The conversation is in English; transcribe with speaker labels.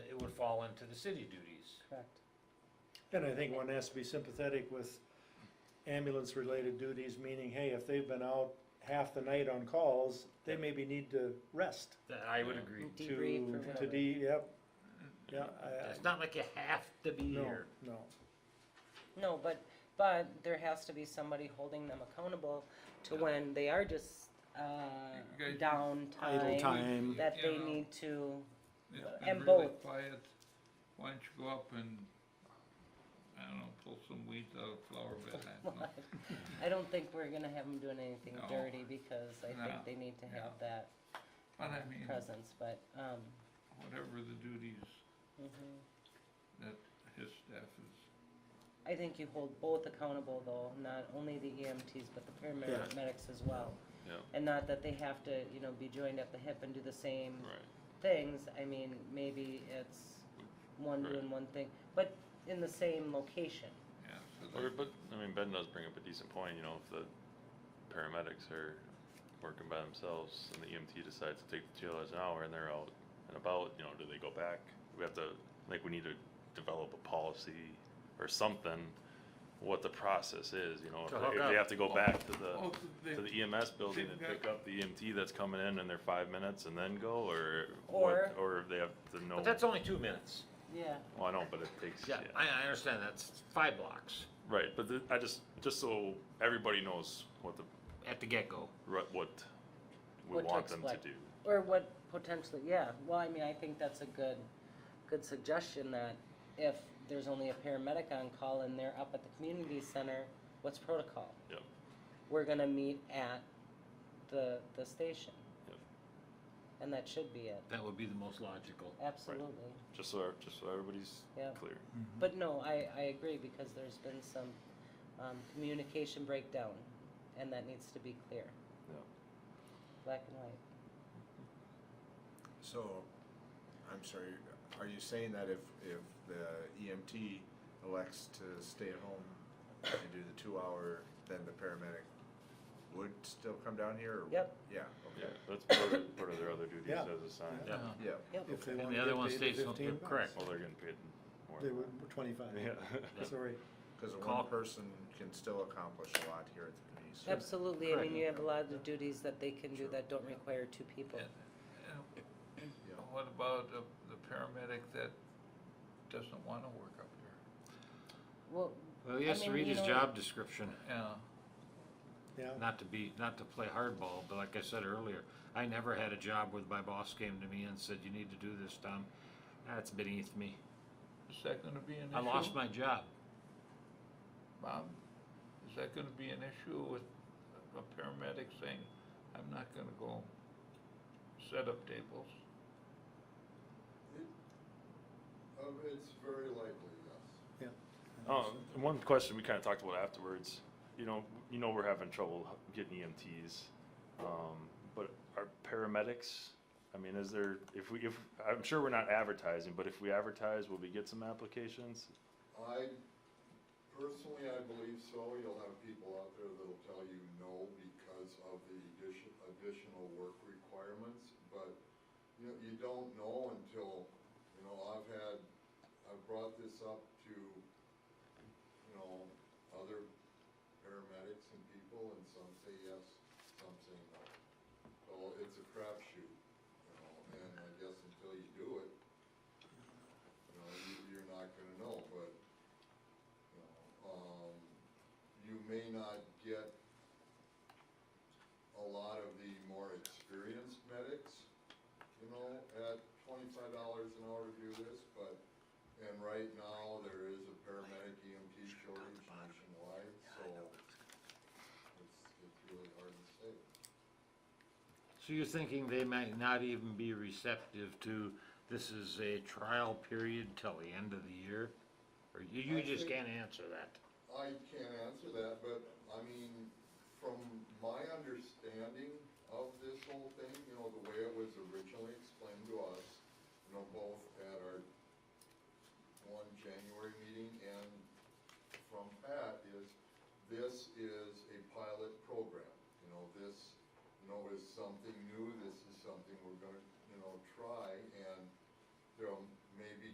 Speaker 1: fall into the city duties.
Speaker 2: Correct.
Speaker 3: And I think one has to be sympathetic with ambulance-related duties, meaning, hey, if they've been out half the night on calls, they maybe need to rest
Speaker 1: That I would
Speaker 4: Yeah.
Speaker 1: agree.
Speaker 3: to,
Speaker 2: Debrief or
Speaker 3: to
Speaker 2: whatever.
Speaker 3: de, yep. Yeah, I, I,
Speaker 1: It's not like you have to be
Speaker 3: no,
Speaker 1: here.
Speaker 3: no,
Speaker 4: No, but, but there has to be somebody holding them accountable to
Speaker 5: Yeah.
Speaker 4: when they are just, uh,
Speaker 5: You guys-
Speaker 3: idle
Speaker 4: downtime,
Speaker 3: time,
Speaker 4: that they
Speaker 5: Yeah.
Speaker 4: need to,
Speaker 5: It's
Speaker 4: Uh,
Speaker 5: been
Speaker 4: and
Speaker 5: really
Speaker 4: both.
Speaker 5: quiet. Why don't you go up and, I don't know, pull some weeds out of the flower bed? I don't know.
Speaker 4: I don't think we're gonna have them doing anything
Speaker 5: No.
Speaker 4: dirty because I
Speaker 5: No.
Speaker 4: think they need to have
Speaker 5: No.
Speaker 4: that
Speaker 5: But I mean,
Speaker 4: presence, but, um,
Speaker 5: whatever the duties
Speaker 3: Mm-hmm.
Speaker 4: mhm.
Speaker 5: that his staff is,
Speaker 4: I think you hold both accountable though, not only the EMTs, but the paramedics as well.
Speaker 6: Yeah.
Speaker 4: And not that they have to, you know, be joined at the hip and do the same
Speaker 6: Right.
Speaker 4: things, I mean, maybe it's one
Speaker 6: Right.
Speaker 4: doing one thing, but in the same location.
Speaker 5: yeah, so
Speaker 6: Or,
Speaker 5: that,
Speaker 6: but, I mean, Ben does bring up a decent point, you know, if the paramedics are working by themselves and the EMT decides to take the two dollars an hour and they're out and about, you know, do they go back? We have to, like, we need to develop a policy or something, what the process is, you know,
Speaker 1: To
Speaker 6: if
Speaker 1: hook
Speaker 6: they, if
Speaker 1: up.
Speaker 6: they have to go back to
Speaker 5: oh,
Speaker 6: the,
Speaker 5: they,
Speaker 6: E to the EMS building
Speaker 5: they've
Speaker 6: and
Speaker 5: got-
Speaker 6: pick up the EMT that's coming in in their five minutes and then go, or
Speaker 4: Or-
Speaker 6: what, or if they have to know.
Speaker 1: But that's only two minutes.
Speaker 4: Yeah.
Speaker 6: Well, I know, but it takes,
Speaker 1: Yeah, I, I understand, that's five blocks
Speaker 6: Right, but th- I just, just so everybody knows what the,
Speaker 1: at the get-go.
Speaker 6: ru- what we
Speaker 4: What to
Speaker 6: want them to
Speaker 4: expect.
Speaker 6: do.
Speaker 4: Or what potentially, yeah, well, I mean, I think that's a good, good suggestion that if there's only a paramedic on call and they're up at the community center, what's protocol?
Speaker 6: Yep.
Speaker 4: We're gonna meet at the, the station.
Speaker 6: Yep.
Speaker 4: And that should be it,
Speaker 1: That would be the most logical.
Speaker 4: absolutely,
Speaker 6: Just so, just so everybody's
Speaker 4: yeah.
Speaker 6: clear.
Speaker 2: Mm-hmm.
Speaker 4: But no, I, I agree because there's been some, um, communication breakdown and that needs to be clear.
Speaker 6: Yeah.
Speaker 4: Black and white.
Speaker 7: So, I'm sorry, are you saying that if, if the EMT elects to stay at home and do the two hour, then the paramedic would still come down here? or-
Speaker 4: Yep.
Speaker 7: Yeah,
Speaker 6: Yeah,
Speaker 7: okay,
Speaker 6: that's part of, part of their other duties
Speaker 3: Yeah.
Speaker 6: as assigned.
Speaker 1: Yeah.
Speaker 7: yeah.
Speaker 3: if they
Speaker 1: And
Speaker 3: wanna
Speaker 1: the other
Speaker 3: get
Speaker 1: one
Speaker 3: paid
Speaker 1: stays on-
Speaker 3: fifteen bucks.
Speaker 1: correct.
Speaker 6: Well, they're getting paid
Speaker 3: They
Speaker 6: more.
Speaker 3: were twenty-five,
Speaker 6: Yeah.
Speaker 3: sorry,
Speaker 7: Cause the
Speaker 1: Call-
Speaker 7: one person can still accomplish a lot here at the community center.
Speaker 4: Absolutely, I
Speaker 1: Correct.
Speaker 4: mean, you have a lot of duties that they can do that don't require two people.
Speaker 5: and what about the the paramedic that doesn't wanna work up here?
Speaker 4: Well,
Speaker 1: Well, he has
Speaker 4: I
Speaker 1: to
Speaker 4: mean,
Speaker 1: read
Speaker 4: you
Speaker 1: his
Speaker 4: know-
Speaker 1: job description,
Speaker 5: Yeah,
Speaker 3: yeah.
Speaker 1: not to be, not to play hardball, but like I said earlier, I never had a job where my boss came to me and said, you need to do this, Tom. That's beneath me.
Speaker 5: is that gonna be an issue?
Speaker 1: I lost my job.
Speaker 5: Bob, is that gonna be an issue with a paramedic saying, I'm not gonna go set up tables?
Speaker 8: Um, it's very likely, yes.
Speaker 6: Um, one question we kinda talked about afterwards, you know, you know we're having trouble getting EMTs, um, but are paramedics? I mean, is there, if we, if, I'm sure we're not advertising, but if we advertise, will we get some applications?
Speaker 8: I, personally, I believe so. You'll have people out there that'll tell you no because of the addition, additional work requirements, but you know, you don't know until, you know, I've had, I've brought this up to, you know, other paramedics and people, and some say yes, some say no. So it's a crapshoot, you know, and I guess until you do it, you know, you, you're not gonna know, but, you know, um, you may not get a lot of the more experienced medics, you know, at twenty-five dollars an hour to do this, but, and right now, there is a paramedic EMT shortage nationwide, so it's, it's really hard to say.
Speaker 1: So you're thinking they might not even be receptive to, this is a trial period till the end of the year? Or you, you
Speaker 8: I
Speaker 1: just
Speaker 8: think-
Speaker 1: can't answer that?
Speaker 8: I can't answer that, but I mean, from my understanding of this whole thing, you know, the way it was originally explained to us, you know, both at our one January meeting and from Pat is, this is a pilot program. You know, this, you know, is something new, this is something we're gonna, you know, try,